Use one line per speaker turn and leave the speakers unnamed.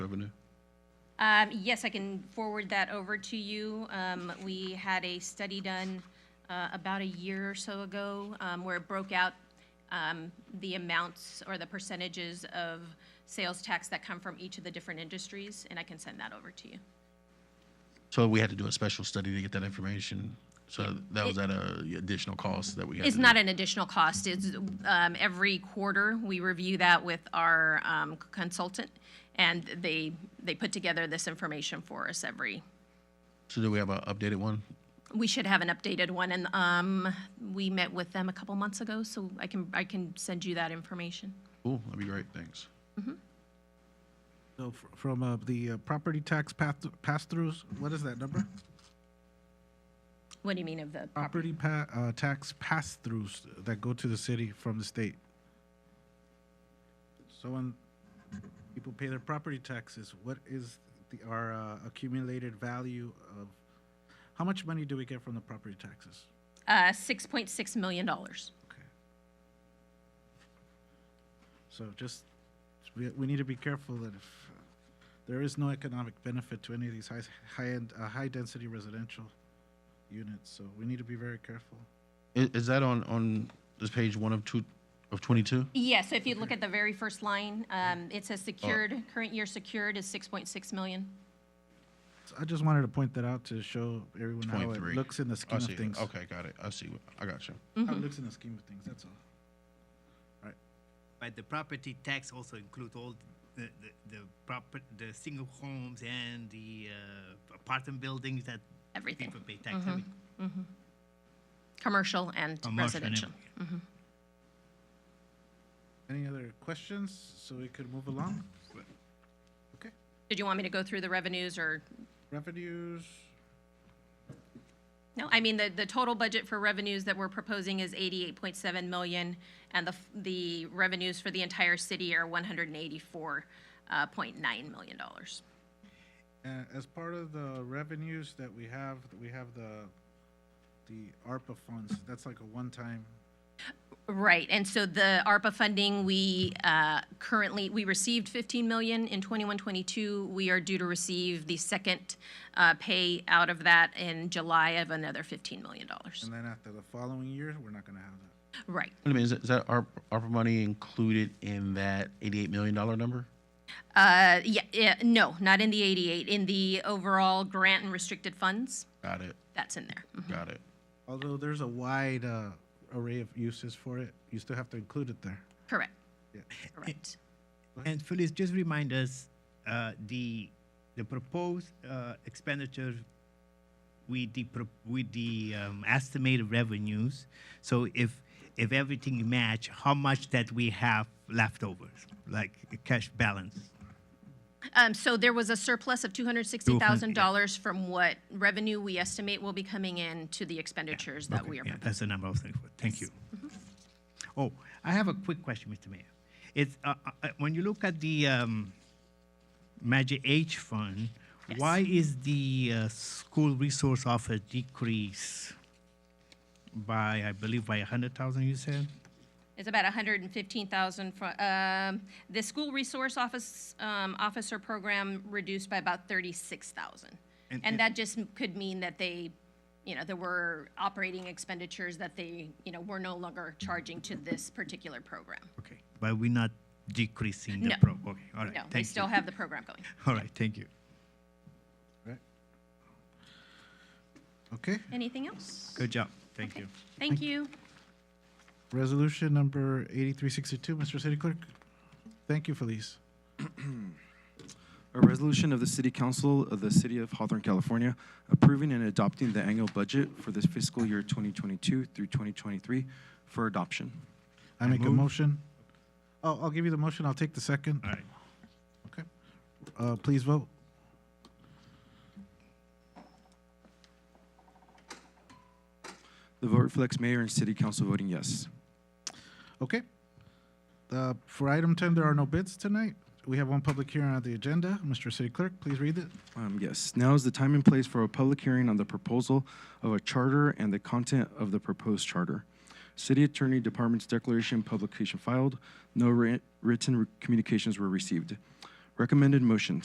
Um, yes, I can forward that over to you. Um, we had a study done, uh, about a year or so ago, um, where it broke out, um, the amounts or the percentages of sales tax that come from each of the different industries, and I can send that over to you.
So we had to do a special study to get that information. So that was at a additional cost that we had.
It's
to do.
not an additional cost. It's, um, every quarter, we review that with our, um, consultant, and they, they put together this information for us every,
So do we have an updated one?
we should have an updated one, and, um, we met with them a couple months ago, so I can, I can send you that information.
Cool, that'd be great, thanks.
So fr- from uh, the uh, property tax path, pass-throughs, what is that number?
What do you mean of the,
Property pa, uh, tax pass-throughs that go to the city from the state. So when people pay their property taxes, what is the, our uh, accumulated value of, how much money do we get from the property taxes?
uh, six point six million dollars?
Okay. So just, we, we need to be careful that if, uh, there is no economic benefit to any of these high, high-end, uh, high-density residential units, so we need to be very careful.
Is, is that on, on this page one of two, of twenty-two?
Yeah, so if you look at the very first line, um, it says secured, current year secured is six point six million.
So I just wanted to point that out to show everyone how it
23.
looks in the
Oh, I
scheme
see,
of things.
okay, got it, I see, I got you.
How it looks in the scheme of things, that's all.
But the property tax also includes all the, the, the proper, the single homes and the uh, apartment buildings that
Everything, Mm-hmm.
people pay tax. every-
commercial and
commercial and
residential.
everything.
Any other questions, so we could move along? Okay,
Did you want me to go through the revenues or,
revenues,
no, I mean, the, the total budget for revenues that we're proposing is eighty-eight point seven million, and the, f- the revenues for the entire city are one hundred and eighty-four, uh, point nine million dollars.
Uh, as part of the revenues that we have, we have the, the ARPA funds, that's like a one-time,
Right, and so the ARPA funding, we uh, currently, we received 15 million in 21, 22. We are due to receive the second uh, pay out of that in July of another 15 million dollars.
and then after the following year, we're not gonna have that.
Mm-hmm.
Right.
Wait a minute, is that- is that ARP, ARPA money included in that eighty-eight million dollar number?
Uh, Yeah, yeah, no, not in the 88, in the overall grant and restricted funds,
Got it,
that's in there. Mhm.
got it.
Although there's a wide, uh, array of uses for it, you still have to include it there.
Correct.
Yeah.
Correct.
And Felice, just remind us, uh, the, the proposed uh, expenditure with the, pro- with the um, estimated revenues. So if, if everything match, how much that we have left over, like cash balance?
Um, So there was a surplus of $260,000 from what revenue we estimate will be coming in to the expenditures that
Okay,
we are Mm-hmm.
yeah,
proposing.
That's the number I was looking for. Thank you. Oh, I have a quick question, Mr. Mayor. It's, uh, uh, uh, when you look at the um, Magic H Fund,
Yes.
why is the uh, school resource offer decrease by, I believe, by 100,000, you said?
It's about hundred and fifteen thousand from, um, the school resource office, um, officer program reduced by about thirty-six thousand.
And-
And
and-
that just m- could mean that they, you know, there were operating expenditures that they, you know, were no longer charging to this particular program.
Okay, but we're not decreasing the
No.
pro, okay, all right,
No,
thank
they
you.
still have the program going.
All right, thank you.
Right. Okay,
Anything else?
Good job, thank you.
Thank you.
resolution number eighty-three sixty-two, Mr. City Clerk. Thank you, Felice.
A resolution of the City Council of the City of Hawthorne, California, approving and adopting the annual budget for this fiscal year 2022 through 2023 for adoption.
I make a
move.
motion. Oh, I'll give you the motion, I'll take the second.
All right,
Okay. Uh, please vote.
The vote reflects Mayor and City Council voting yes.
Okay. Uh, For item 10, there are no bids tonight. We have one public hearing on the agenda. Mr. City Clerk, please read it.
Um, Yes, now is the time and place for a public hearing on the proposal of a charter and the content of the proposed charter. City Attorney Department's declaration publication filed, no writ- written communications were received. Recommended motion,